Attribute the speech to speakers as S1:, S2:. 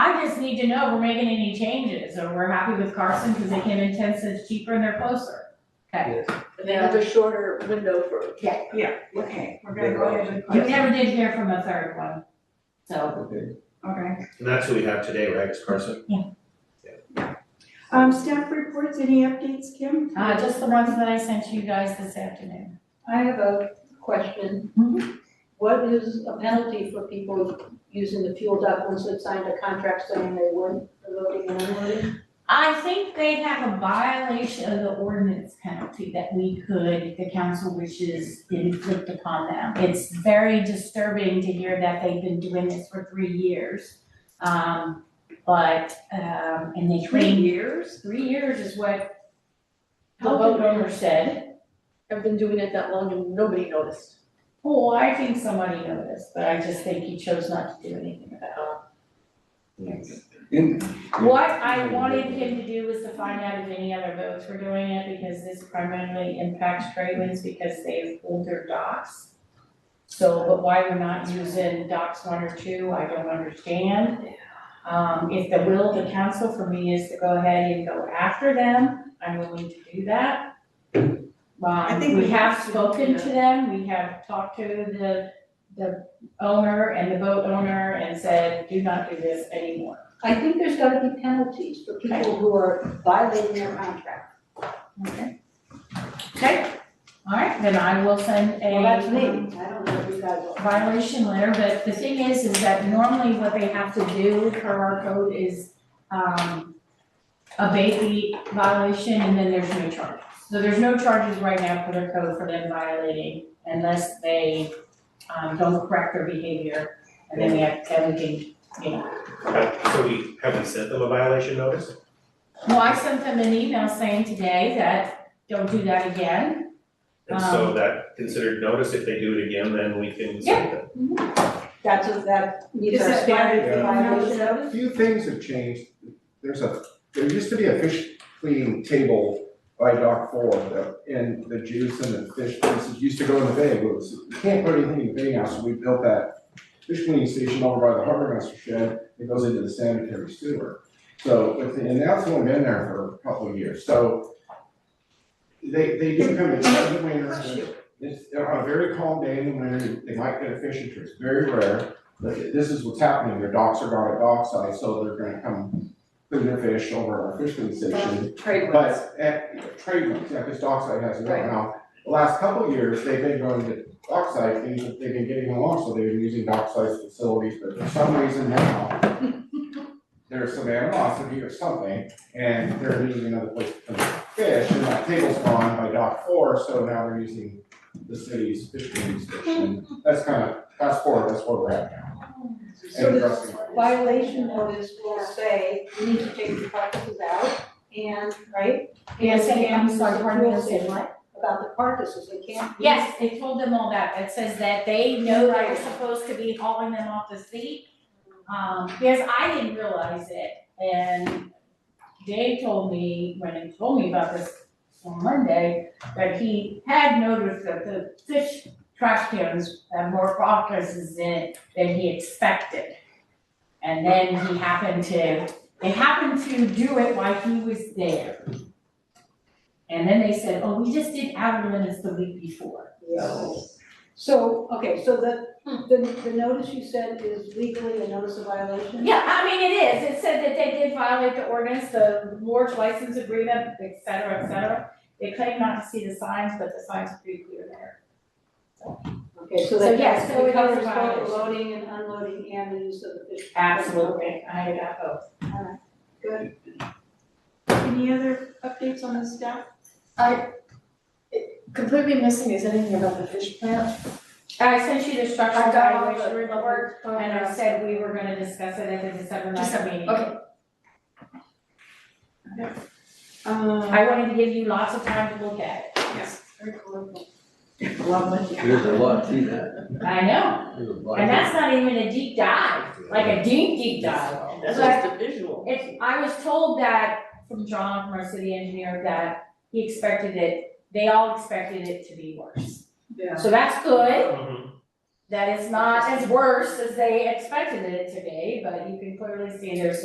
S1: need to know if we're making any changes, or we're happy with Carson because they came in ten cents cheaper and they're closer.
S2: And they have a shorter window for.
S3: Yeah, okay, we're gonna go ahead and.
S1: You never did hear from a third one, so.
S4: Okay.
S3: Okay.
S5: And that's what we have today, right, is Carson?
S3: Um, staff reports, any updates, Kim?
S1: Uh, just the ones that I sent you guys this afternoon.
S2: I have a question.
S1: Mm-hmm.
S2: What is a penalty for people using the fuel dock once they've signed a contract saying they weren't loading and unloading?
S1: I think they have a violation of the ordinance penalty that we could, if the council wishes, inflict upon them. It's very disturbing to hear that they've been doing this for three years. Um, but, um, and they train.
S3: years?
S1: Three years is what the
S2: How about-
S1: boat owner said.
S2: I've been doing it that long and nobody noticed.
S1: Oh, I think somebody noticed, but I just think he chose not to do anything about it.
S4: In-
S1: What I wanted him to do was to find out if any other boats were doing it, because this primarily impacts trade winds because they have older docks. So, but why we're not using docks one or two, I don't understand. Um, if the will of the council for me is to go ahead and go after them, I'm willing to do that.
S3: I
S1: Um,
S3: think
S1: we
S3: we
S1: have
S3: have to do
S1: spoken
S3: that.
S1: to them, we have talked to the, the owner and the boat owner and said, do not do this anymore.
S2: I think there's gotta be penalties for people who are violating their contract.
S1: Okay. Okay, all right, then I will send a.
S2: Well, that's me, I don't know if you guys will.
S1: violation letter, but the thing is, is that normally what they have to do per our code is, um, abate the violation and then there's no charge. So there's no charges right now for their code for them violating unless they, um, don't correct their behavior. And then we have, then we can, you know,
S5: Have- So we, have we sent them a violation notice?
S1: well, I sent them an email saying today that don't do that again.
S5: And so
S1: Um.
S5: that considered notice, if they do it again, then we can send them.
S2: That's a, that needs
S3: Is
S2: our
S3: that
S2: standard for
S4: bad?
S2: violation.
S3: notice?
S4: A few things have changed. There's a, there used to be a fish cleaning table by dock four, the- and the juice and the fish pieces used to go in the bay. It was, you can't put anything in the bay now, so we built that fish cleaning station over by the harbor master shed. It goes into the sanitary sewer. So, but the- and that's only been there for a couple of years, so they, they do come in the winter. and It's, on a very calm day in the winter, they might get a fish or two. It's very rare. But this is what's happening, their docks are down at dockside, so they're gonna come clean their fish over at our fishing station.
S2: Trade winds.
S4: But at trade winds, yeah, because dockside has it right now. The last couple of years, they've been going to dockside, and they've been getting along, so they've been using dockside's facilities, but for some reason now, there's some animosity or something, and they're needing another place to put fish, and that table's gone by dock four, so now they're using the city's fishing station. That's kind of, fast forward, that's where we're at now.
S2: So
S4: And
S2: this
S4: dressing rooms.
S2: violation notice will say, you need to take your carcasses out and, right?
S1: Yes, I am, sorry, pardon me, I
S2: And
S1: said what?
S2: About the carcasses, they can't. be-
S1: Yes, they told them all that, it says that they know they're supposed to be hauling them off the sea. Um, yes, I didn't realize it, and Dave told me, when he told me about this on Monday, that he had noticed that the fish trash cans had more carcasses in it than he expected. And then he happened to, they happened to do it while he was there. And then they said, oh, we just did outer limits the week before.
S2: Yes. So, okay, so the, the, the notice you said is legally a notice of violation?
S1: Yeah, I mean, it is, it said that they did violate the ordinance, the Lord's license agreement, et cetera, et cetera. They claim not to see the signs, but the signs are pretty clear there.
S2: Okay, so
S1: So
S2: that,
S1: yes, so
S2: it
S1: it covers
S2: covers both
S1: violation.
S2: loading and unloading and the use of the fish.
S1: I got both.
S2: Good.
S3: Any other updates on the staff?
S6: completely missing is anything about the fish plant.
S1: I sent you the structural
S6: I got all
S1: evaluation
S6: the-
S1: report, and I said we were gonna discuss it at the December ninth
S6: December,
S1: meeting.
S6: okay.
S1: I wanted to give you lots of time to look at it.
S6: yes, very colorful.
S3: Lovely.
S7: There's a lot to that.
S1: I know,
S7: There's a lot.
S1: and that's not even a deep dive, like a deep, deep dive.
S3: That's just a visual.
S1: If, I was told that from John, from our city engineer, that he expected it, they all expected it to be worse.
S3: Yeah.
S1: So that's good,
S5: Mhm.
S1: that it's not as worse as they expected it to be, but you can clearly see there's